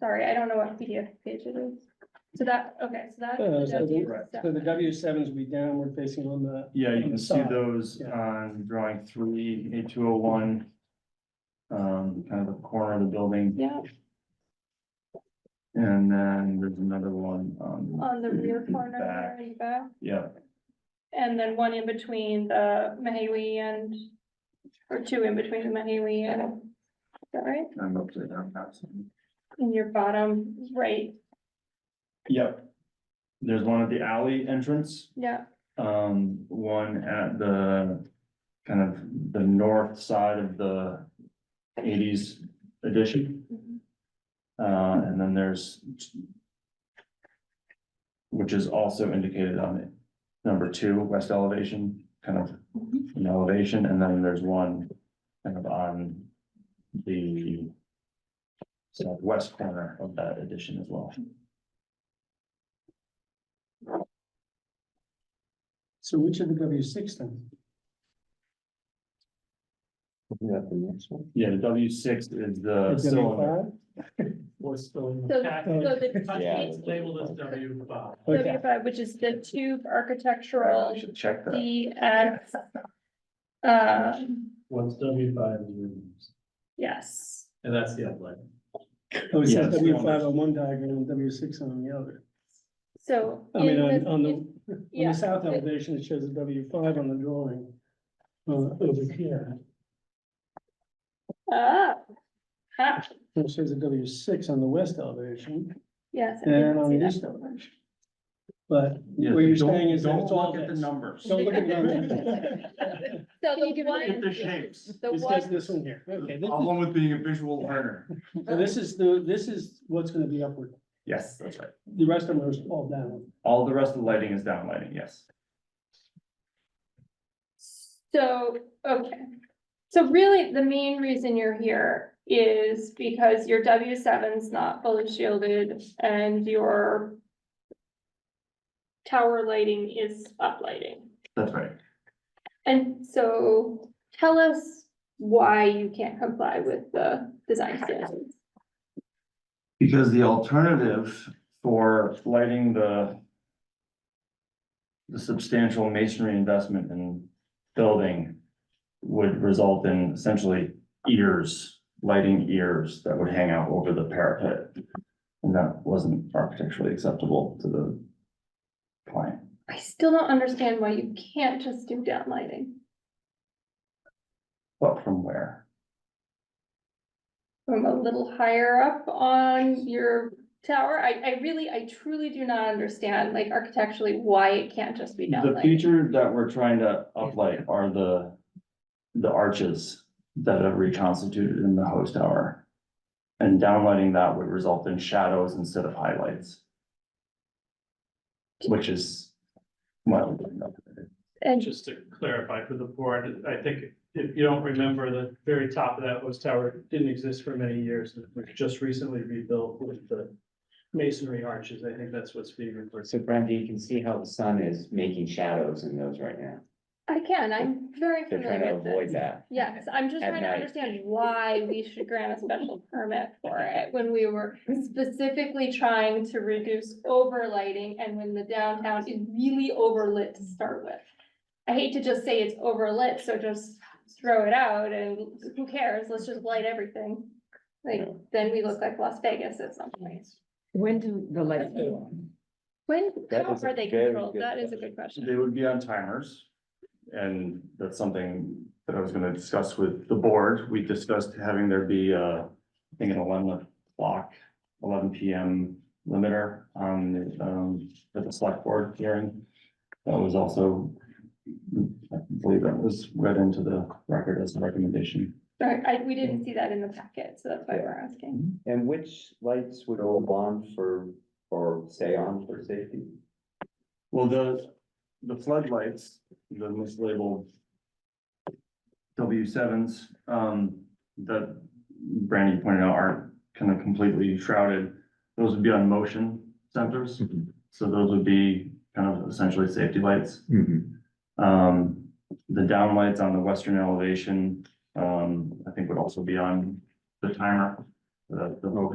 sorry, I don't know what PDF page it is. So that, okay, so that. Uh, so the- W Right. So the W sevens will be downward facing on the, Yeah, you can see Side, those yeah. on drawing three, A two oh one. Um, kind of the corner of the building, Yeah, and then there's another one on, on the rear corner Back. there you go. yeah, And then one in between the Mahiwi and, or two in between the Mahiwi and, is that right? I'm upside down. that's- In your bottom right, Yep. There's one at the alley entrance, yeah, um, one at the kind of the north side of the eighties addition. Uh, and then there's which is also indicated on it, number two, west elevation, kind of an elevation, and then there's one kind of on the southwest corner of that addition as well. so which of the W six then? Not the next one. Yeah, the W six is the Is it cylinder. W What's still in So- the packet? so the- Yeah. It's labeled as W five. five? Oh, Okay, five, which is the tube architectural I should check that. DX. Uh, What's W five is removed, yes, and that's the outline. oh, it Yeah, says it's W on five this. on one diagram and W six on the other. so. I mean, in on, the- on the, in- on yeah, the south elevation, it shows a W five on the drawing. Uh, over here, Ah. Ah, it shows a W six on the west elevation yes. I didn't and on see the that. east elevation. But Yeah, what you're don't- saying is that don't it's all look at the this. numbers. don't look at that. So the Get the one, shapes. the It says one, this one here, okay, this, Problem with being a visual learner. so this is the, this is what's gonna be upward, Yes, that's right. the rest of them are all down. All the rest of the lighting is down lighting, yes. so, okay. So really, the main reason you're here is because your W seven's not fully shielded and your tower lighting is uplighting. That's right. And so tell us why you can't comply with the design standards. Because the alternative for lighting the the substantial masonry investment in building would result in essentially ears, lighting ears that would hang out over the parapet. And that wasn't architecturally acceptable to the client. I still don't understand why you can't just do downlighting But from where? from a little higher up on your tower. I, I really, I truly do not understand, like architecturally, why it can't just be The downlighting. feature that we're trying to uplight are the, the arches that are reconstituted in the host tower. And downlighting that would result in shadows instead of highlights. Which is. well, And Just to clarify for the board, I think if you don't remember, the very top of that host tower didn't exist for many years. and It was just recently rebuilt with the masonry arches. I think that's what's being referred to. So Brenda, you can see how the sun is making shadows in those right now. I can, I'm very They're trying to familiar with avoid this. that. Yes, I'm just At trying to night. understand why we should grant a special permit for it when we were specifically trying to reduce overlighting and when the downtown is really overlit to start with. I hate to just say it's overlit, so just throw it out and who cares, let's just light everything. Like, then we look like Las Vegas at some point. When do the lights go on? When, That how is are a they very controlled? good That is a question. good question. They would be on timers. And that's something that I was gonna discuss with the board. We discussed having there be uh I think an eleven o'clock, eleven P M limiter on the, um, for the select board hearing. That was also, I believe that was read into the record as a recommendation. Sorry, I, we Mm. didn't see that in the packet, so that's why we're asking. And which lights would all on for, or stay on for safety? Well, the, the floodlights, the mislabeled W sevens, um, that Brandy pointed out aren't kind of completely shrouded. Those would be on motion sensors, so those would be kind of essentially safety lights. Um, the downlights on the western elevation, um, I think would also be on the timer, the, the